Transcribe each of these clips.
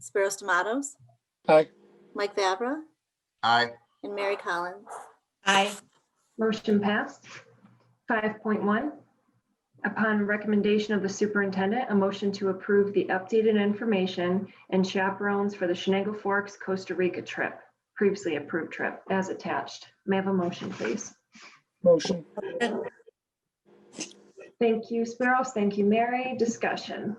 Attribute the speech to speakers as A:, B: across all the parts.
A: Spiros Tomatoes,
B: Aye.
A: Mike Fabra,
C: Aye.
A: and Mary Collins.
D: Aye.
E: Motion passed. 5.1, upon recommendation of the superintendent, a motion to approve the updated information and chaperones for the Shenango Forks Costa Rica trip, previously approved trip, as attached. May I have a motion, please?
B: Motion.
E: Thank you, Spiros. Thank you, Mary. Discussion.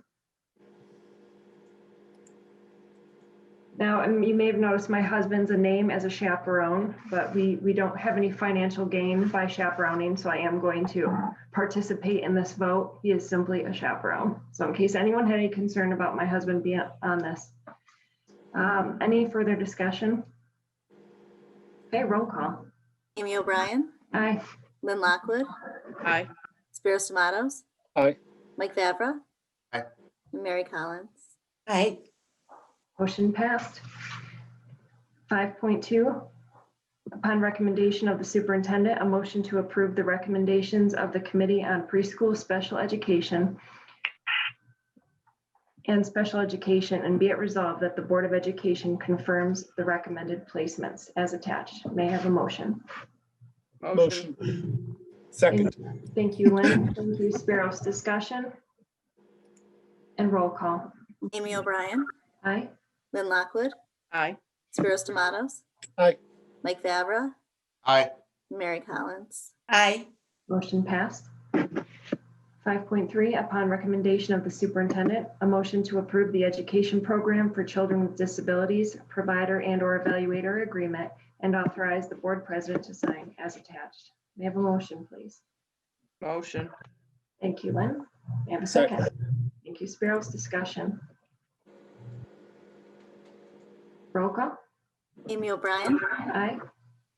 E: Now, um, you may have noticed my husband's a name as a chaperone, but we, we don't have any financial gain by chaperoning, so I am going to participate in this vote. He is simply a chaperone. So in case anyone had any concern about my husband being on this. Um, Any further discussion? Okay, roll call.
A: Amy O'Brien,
E: Aye.
A: Lynn Lockwood,
D: Aye.
A: Spiros Tomatoes.
B: Aye.
A: Mike Fabra.
C: Aye.
A: And Mary Collins.
D: Aye.
E: Motion passed. 5.2, upon recommendation of the superintendent, a motion to approve the recommendations of the Committee on Preschool Special Education and Special Education, and be it resolved that the Board of Education confirms the recommended placements as attached. May I have a motion?
B: Motion. Second.
E: Thank you, Lynn. Thank you, Spiros. Discussion? And roll call.
A: Amy O'Brien,
E: Aye.
A: Lynn Lockwood,
D: Aye.
A: Spiros Tomatoes.
B: Aye.
A: Mike Fabra,
C: Aye.
A: and Mary Collins.
D: Aye.
E: Motion passed. 5.3, upon recommendation of the superintendent, a motion to approve the education program for children with disabilities, provider and/or evaluator agreement, and authorize the board president to sign as attached. May I have a motion, please?
D: Motion.
E: Thank you, Lynn. May I have a second? Thank you, Spiros. Discussion. Roll call.
A: Amy O'Brien,
E: Aye.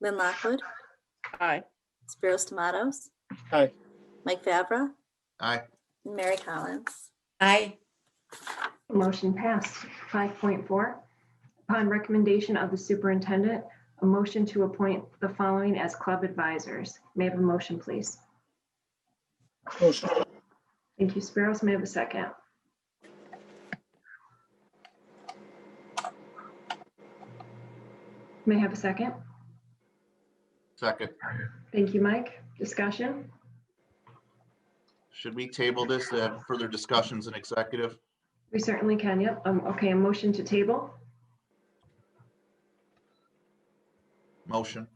A: Lynn Lockwood,
D: Aye.
A: Spiros Tomatoes.
B: Aye.
A: Mike Fabra,
C: Aye.
A: and Mary Collins.
D: Aye.
E: Motion passed. 5.4, upon recommendation of the superintendent, a motion to appoint the following as club advisors. May I have a motion, please?
B: Motion.
E: Thank you, Spiros. May I have a second? May I have a second?
C: Second.
E: Thank you, Mike. Discussion?
C: Should we table this to have further discussions in executive?
E: We certainly can, yep. Um, Okay, a motion to table.
C: Motion.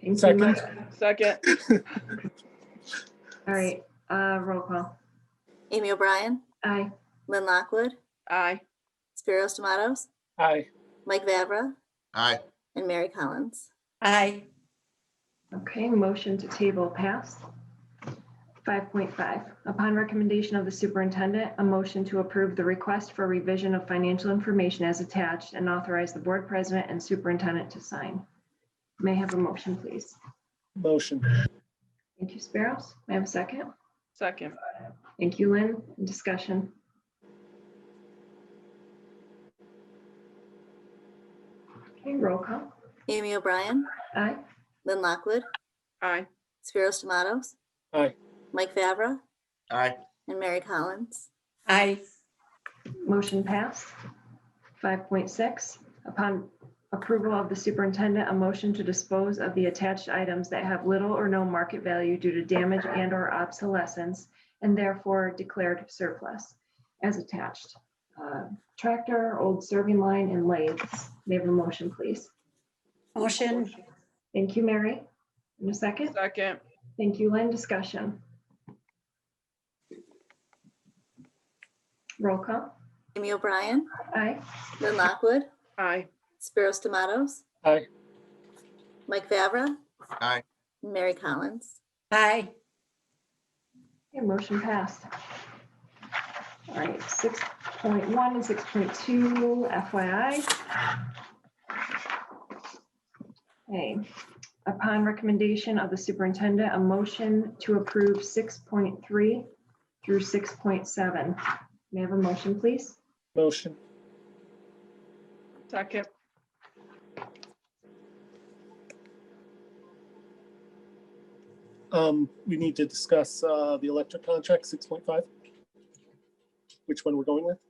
E: Thank you,
B: Second.
E: Mike.
D: Second.
E: All right, uh, roll call.
A: Amy O'Brien,
E: Aye.
A: Lynn Lockwood,
D: Aye.
A: Spiros Tomatoes.
B: Aye.
A: Mike Vavra
C: Aye.
A: and Mary Collins.
D: Aye.
E: Okay, motion to table passed. 5.5, upon recommendation of the superintendent, a motion to approve the request for revision of financial information as attached and authorize the board president and superintendent to sign. May I have a motion, please?
B: Motion.
E: Thank you, Spiros. May I have a second?
D: Second.
E: Thank you, Lynn. Discussion? Okay, roll call.
A: Amy O'Brien,
E: Aye.
A: Lynn Lockwood,
D: Aye.
A: Spiros Tomatoes.
B: Aye.
A: Mike Fabra
C: Aye.
A: and Mary Collins.
D: Aye.
E: Motion passed. 5.6, upon approval of the superintendent, a motion to dispose of the attached items that have little or no market value due to damage and/or obsolescence and therefore declared surplus as attached. Uh, Tractor, old serving line, and lathes. May I have a motion, please?
F: Motion,
E: Thank you, Mary. In a second.
D: Second.
E: Thank you, Lynn. Discussion. Roll call.
A: Amy O'Brien,
E: Aye.
A: Lynn Lockwood,
D: Aye.
A: Spiros Tomatoes.
B: Aye.
A: Mike Fabra.
C: Aye.
A: and Mary Collins.
F: aye,
E: Okay, motion passed. All right, six point one and six point two FYI. Okay, upon recommendation of the superintendent, a motion to approve six point three through six point seven. May I have a motion, please?
B: Motion.
D: Second.
B: Um, we need to discuss, uh, the electric contract, six point five. Which one we're going with?